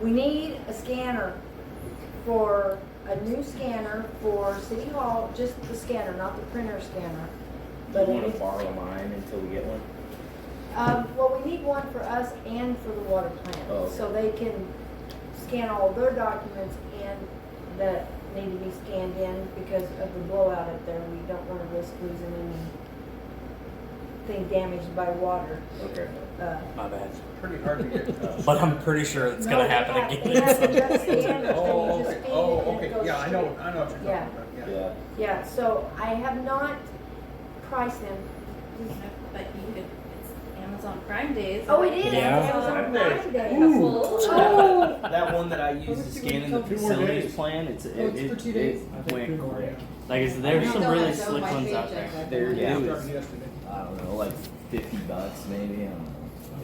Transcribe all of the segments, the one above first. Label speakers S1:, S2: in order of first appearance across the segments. S1: We need a scanner for, a new scanner for City Hall, just the scanner, not the printer scanner.
S2: Do
S1: But
S2: you
S1: it
S2: wanna
S1: needs-
S2: borrow mine until we get one?
S1: Um, well, we need one for us and for the water
S2: Oh.
S1: plant, so they can scan all their documents and that need to be scanned in because of the blowout up there. We don't wanna risk losing anything damaged by water.
S2: Okay.
S1: Uh,
S3: My bad.
S4: Pretty hard to get. uh,
S3: But I'm pretty sure it's
S1: no,
S3: gonna
S1: they
S3: happen
S1: have-
S3: again.
S1: They have to just scan it, so
S4: Oh,
S1: you just
S4: okay,
S1: feed it
S4: oh,
S1: and it
S4: okay,
S1: goes
S4: yeah, I
S1: straight.
S4: know, I know what you're talking
S1: Yeah.
S4: about, yeah.
S2: Yeah.
S1: Yeah, so I have not priced them.
S5: But you could, it's Amazon Prime Days.
S1: Oh, it is
S3: Yeah.
S1: Amazon Prime Day.
S5: Ooh.
S2: That one that I used to scan in the
S6: Oh! Two more days.
S2: facilities plan, it's, it,
S6: Oh, it's for
S2: it,
S6: two days?
S2: it went quick.
S3: Like, is,
S6: I
S3: there's
S6: don't
S3: some
S6: know, I
S3: really
S6: don't
S3: slick
S6: like
S3: ones out
S6: paychecks, I
S3: there.
S2: There,
S6: don't like-
S2: yeah, it was,
S4: Started yesterday.
S2: I don't know, like fifty bucks maybe, I don't know.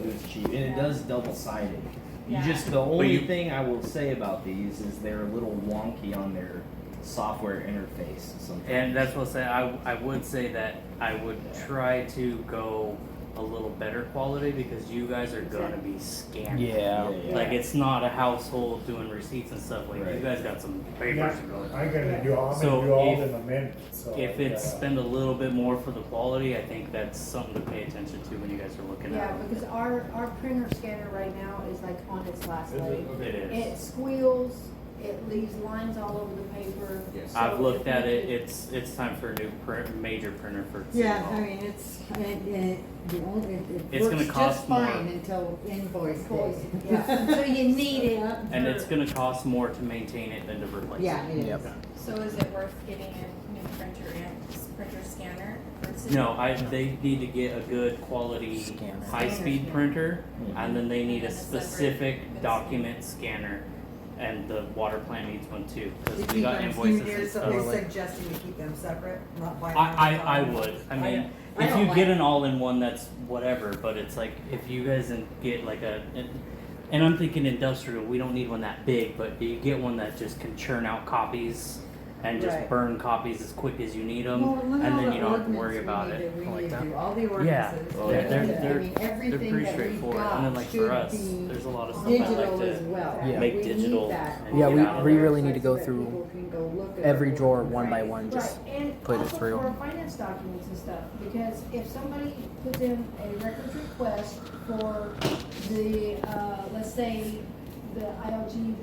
S2: It was cheap, and it does double sided. You
S5: Yeah.
S2: just, the
S3: you-
S2: only thing I will say about these is they're a little wonky on their software interface sometimes.
S3: And that's what I say. I I would say that I would try to go a little better quality because you guys are gonna be scanning.
S2: Yeah.
S3: Like it's not a household doing receipts and stuff like you
S2: Right.
S3: guys got some papers to go.
S7: I'm gonna do, all- I'm
S3: So
S7: gonna do all
S3: if-
S7: in a minute, so.
S3: If
S7: uh,
S3: it's spend a little bit more for the quality, I think that's something to pay attention to when you guys are looking
S6: Yeah,
S3: at it.
S6: because our, our printer scanner right now is like on its last
S4: Is
S6: leg.
S4: it? Okay.
S3: It
S6: It
S3: is.
S6: squeals, it leaves lines all over the paper.
S4: Yes.
S6: so
S3: I've looked
S6: if we
S3: at it.
S6: could-
S3: It's it's time for a new print, major printer for. City
S8: Yeah,
S3: Hall.
S8: I mean, it's, it, it, the only, it, it
S3: It's gonna
S8: works just
S3: cost more.
S8: fine until invoice
S6: Invoice,
S8: day.
S6: yeah.
S8: So you need it.
S3: And it's gonna cost more to maintain it than to replace.
S8: Yeah,
S3: It.
S8: it
S2: Yep.
S8: is.
S5: So is it worth getting a new printer and printer scanner? for city?
S3: No, I they need to get a good quality
S2: Scanner.
S3: high speed
S8: Scanner,
S3: printer,
S2: Mhm.
S3: and then they need a
S5: And a separate
S3: specific
S5: scanner.
S3: document scanner, and the water plant needs one too
S9: To
S3: because we
S9: keep
S3: got
S9: them,
S3: invoices
S9: you're
S3: and
S9: so-
S3: stuff.
S9: you're
S3: like-
S9: suggesting we keep them separate, not buy them
S3: I,
S9: on
S3: I, I
S9: top?
S3: would. I mean,
S8: I
S3: if
S8: don't
S3: you
S8: like-
S3: get an all-in-one, that's whatever. But it's like if you guys in- get like a, an- and I'm thinking industrial. We don't need one that big, but you get one that just can churn out copies and just
S8: Right.
S3: burn copies as quick as you need them,
S8: Well, look at
S3: and
S8: all
S3: then
S8: the
S3: you don't have to
S8: ordinance
S3: worry
S8: we
S3: about
S8: need
S3: it.
S8: that we
S3: I like
S8: need to
S3: that.
S8: do, All the
S3: Yeah.
S8: ordinances.
S2: Oh, yeah.
S3: They're-
S8: I
S3: they're-
S8: mean,
S3: They're pretty
S8: everything that we've
S3: straightforward. And then
S8: got
S3: like for
S8: should
S3: us,
S8: be
S3: there's a lot of stuff I like
S8: digital as
S3: to.
S8: well.
S1: Yeah.
S3: make
S8: We need
S3: digital
S8: that
S3: and
S8: on
S10: Yeah,
S3: get
S10: we-
S3: out of
S10: we
S3: there.
S10: really need to
S8: websites
S10: go
S8: that
S10: through
S8: people can go look at
S10: every
S8: their
S10: drawer
S8: ordinance.
S10: one by
S8: Right.
S10: one, just
S6: Right, and
S10: put it
S6: also
S10: through.
S6: for our finance documents and stuff, because if somebody puts in a records request for the, uh, let's say, the ILG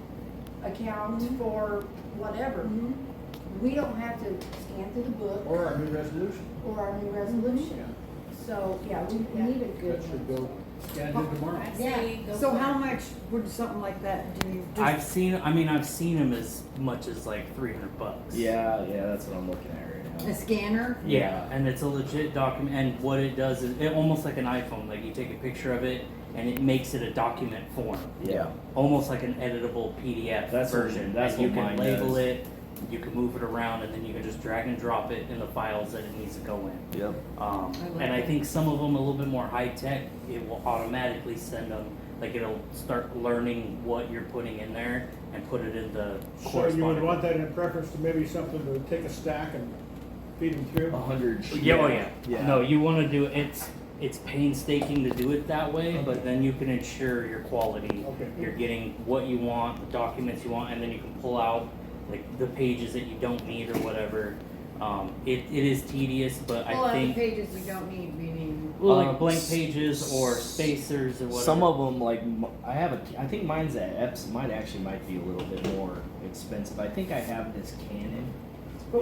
S6: account for whatever,
S8: Mm-hmm.
S6: we don't have to scan through the book
S4: Or our new resolution,
S6: or our new
S4: yeah,
S6: resolution. So, yeah, we we need a good
S4: that should
S6: one.
S4: go, yeah, do tomorrow.
S5: I say
S9: Yeah,
S5: go
S9: so
S5: for
S9: how
S5: it.
S9: much would something like that do you?
S3: I've seen. I mean, I've seen them as much as like three hundred bucks.
S2: Yeah, yeah, that's what I'm looking at right now.
S8: A scanner,
S3: Yeah, and it's a legit document. And what it does is, it almost like an iPhone. Like you take a picture of it, and it makes it a document form,
S2: Yeah.
S3: almost like an editable PDF
S2: That's what-
S3: version.
S2: that's
S3: and you
S2: what
S3: can
S2: mine
S3: label
S2: does.
S3: it, you can move it around, and then you can just drag and drop it in the files that it needs to go in.
S2: Yep.
S3: Um,
S8: I like
S3: and I
S8: it.
S3: think some of them a little bit more high tech. It will automatically send them. Like it'll start learning what you're putting in there and put it in the
S7: So you would
S3: corresponding-
S7: want that in preference to maybe something to take a stack and feed them through?
S2: A hundred.
S3: Yeah, oh yeah.
S2: Yeah.
S3: No, you want to do it's it's painstaking to do it that way, but then you can ensure your quality.
S7: Okay.
S3: You're getting what you want, the documents you want, and then you can pull out like the pages that you don't need or whatever. Um, it, it is tedious, but
S8: pull
S3: I
S8: out the
S3: think
S8: pages we don't need, we need.
S3: well, like
S2: Um,
S3: blank
S2: s-
S3: pages or spacers or whatever.
S2: Some of them, like m- I have a, I think mine's at Epson. Mine actually might be a little bit more expensive. I think I have this Canon,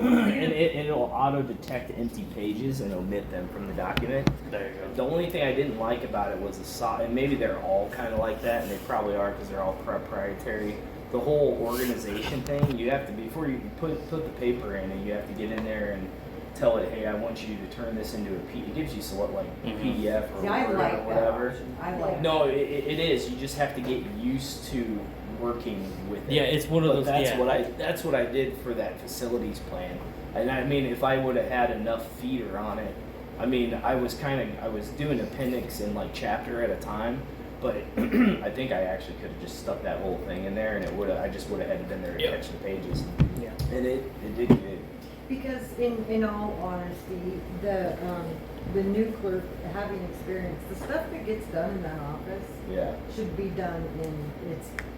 S2: and it, it'll auto detect empty pages and omit them from the document.
S3: there you go.
S2: The only thing I didn't like about it was the so and maybe they're all kind of like that, and they probably are because they're all proprietary. The whole organization thing, you have to before you can put put the paper in, and you have to get in there and tell it, hey, I want you to turn this into a P. It gives you so what like
S3: Mhm.
S2: PDF or
S9: See, I
S2: Word
S9: like
S2: or
S9: that
S2: whatever.
S9: option, I like. that.
S2: No, it, it it is. You just have to get used to working with it.
S3: Yeah, it's one of
S2: But
S3: those-
S2: That's
S3: yeah.
S2: what I. That's what I did for that facilities plan. And I mean, if I would have had enough feeder on it, I mean, I was kind of I was doing appendix and like chapter at a time. But I think I actually could have just stuck that whole thing in there, and it would have. I just would have had to been there to
S3: Yeah.
S2: catch the pages.
S3: Yeah.
S2: And it it did good.
S8: Because in, in all honesty, the, um, the new clerk, having experience, the stuff that gets done in that office
S2: Yeah.
S8: should be done in its